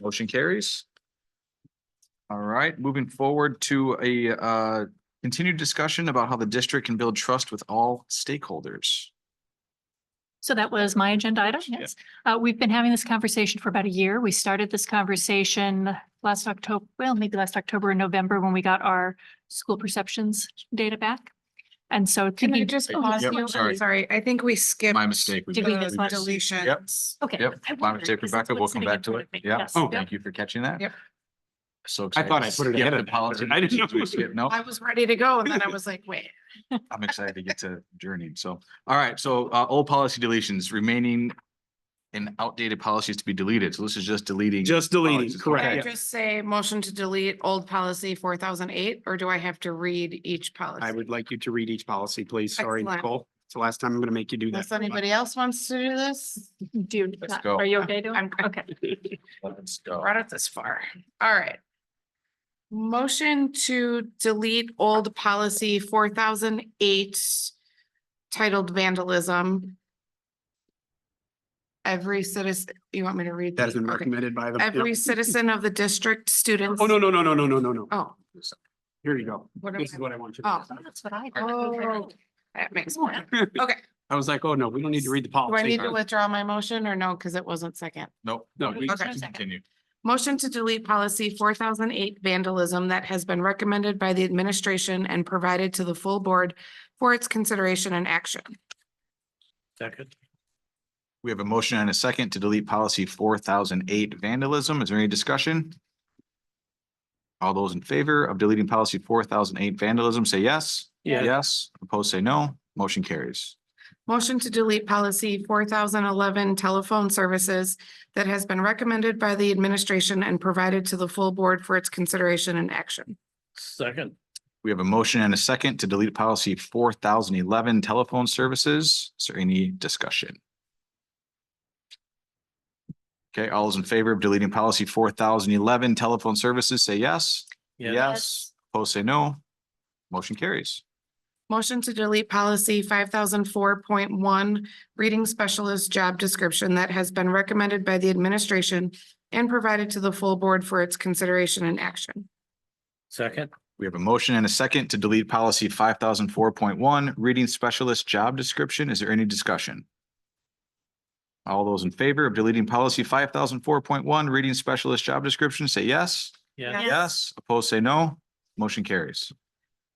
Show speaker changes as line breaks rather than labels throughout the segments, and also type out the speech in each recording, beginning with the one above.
Motion carries. All right, moving forward to a uh continued discussion about how the district can build trust with all stakeholders.
So that was my agenda item,
Yeah.
yes. Uh, we've been having this conversation for about a year. We started this conversation last October, well, maybe last October and November when we got our school perceptions data back. And so
Can I
thinking-
just
Oh,
pause
Yep,
you? I'm
sorry.
Sorry, I think we skipped.
My mistake.
Did we miss
the
one?
Yep.
Deletions.
Okay.
Yep,
I
my
wondered,
mistake,
'cause that's
Rebecca. We'll
what's
come
sitting in
back to
front
it.
of me.
Yeah,
Yes.
Oh,
Yep.
thank you for catching that.
Yep.
So
I
excited.
thought I put it ahead of-
Apology.
I didn't know.
Skip. No,
I was ready to go and then I was like, wait.
I'm excited to get to journey. So, all right, so uh old policy deletions remaining and outdated policies to be deleted. So this is just deleting.
Just deleting,
Policies,
Can I
correct. yeah.
just say motion to delete old policy four thousand eight, or do I have to read each
I
policy?
would like you to read each policy, please. Sorry,
Excellent.
Nicole. It's the last time I'm going to make you do that.
Unless anybody else wants to do this,
Do, you
Let's
not-
go.
are you okay doing?
I'm,
Okay.
Let's go.
brought it this far. All right. Motion to delete old policy four thousand eight titled vandalism. Every citizen, you want me to read?
That has
the-
been
okay.
recommended by the.
Every citizen of the district, students.
Oh, no, no, no, no, no, no, no, no.
Oh.
Here you go.
what am
This
I-
is what I want you
Oh.
to.
That's what I.
Oh, that makes more.
do.
Okay.
I was like, oh, no, we don't need to read the
Do I
policy.
need to withdraw my motion or no? Because it wasn't second.
Nope.
No,
we
okay.
can Continue.
Motion to delete policy four thousand eight vandalism that has been recommended by the administration and provided to the full board for its consideration and action.
Second.
We have a motion and a second to delete policy four thousand eight vandalism. Is there any discussion? All those in favor of deleting policy four thousand eight vandalism, say yes.
Yeah.
Yes, opposed, say no. Motion carries.
Motion to delete policy four thousand eleven telephone services that has been recommended by the administration and provided to the full board for its consideration and action.
Second,
We have a motion and a second to delete policy four thousand eleven telephone services. Is there any discussion? Okay, all those in favor of deleting policy four thousand eleven telephone services, say yes.
Yes.
Yes, opposed, say no. Motion carries.
Motion to delete policy five thousand four point one, reading specialist job description that has been recommended by the administration and provided to the full board for its consideration and action.
second,
We have a motion and a second to delete policy five thousand four point one, reading specialist job description. Is there any discussion? All those in favor of deleting policy five thousand four point one, reading specialist job description, say yes.
yeah,
Yes.
Yes, opposed, say no. Motion carries.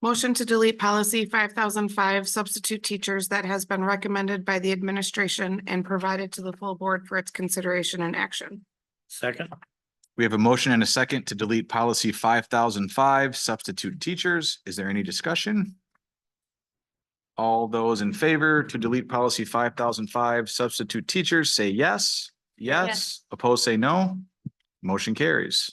Motion to delete policy five thousand five, substitute teachers that has been recommended by the administration and provided to the full board for its consideration and action.
second,
We have a motion and a second to delete policy five thousand five, substitute teachers. Is there any discussion? All those in favor to delete policy five thousand five, substitute teachers, say yes. Yes,
Yes.
opposed, say no. Motion carries.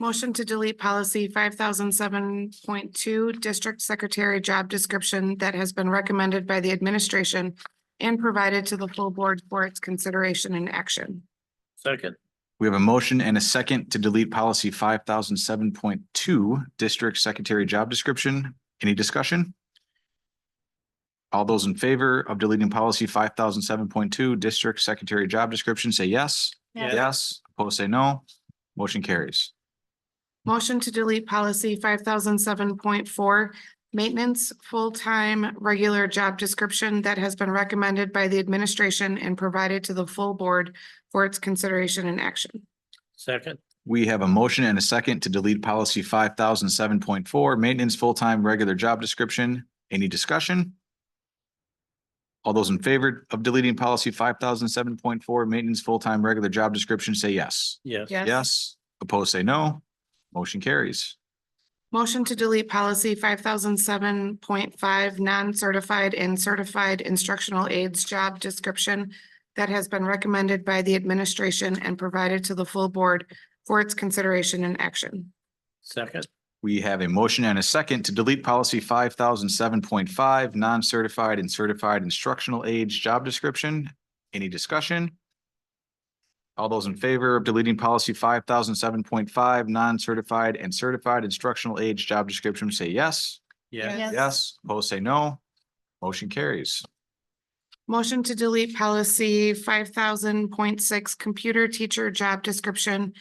Motion to delete policy five thousand seven point two, district secretary job description that has been recommended by the administration and provided to the full board for its consideration and action.
second,
We have a motion and a second to delete policy five thousand seven point two, district secretary job description. Any discussion? All those in favor of deleting policy five thousand seven point two, district secretary job description, say yes.
Yes.
Yes, opposed, say no. Motion carries.
Motion to delete policy five thousand seven point four, maintenance, full-time, regular job description that has been recommended by the administration and provided to the full board for its consideration and action.
second,
We have a motion and a second to delete policy five thousand seven point four, maintenance full-time regular job description. Any discussion? All those in favor of deleting policy five thousand seven point four, maintenance full-time regular job description, say yes.
yes,
Yes, opposed, say no. Motion carries.
Motion to delete policy five thousand seven point five, non-certified and certified instructional aides job description that has been recommended by the administration and provided to the full board for its consideration and action.
second,
We have a motion and a second to delete policy five thousand seven point five, non-certified and certified instructional age job description. Any discussion? All those in favor of deleting policy five thousand seven point five, non-certified and certified instructional age job description, say yes.
yeah,
Yes, opposed, say no. Motion carries.
Motion to delete policy five thousand point six, computer teacher job description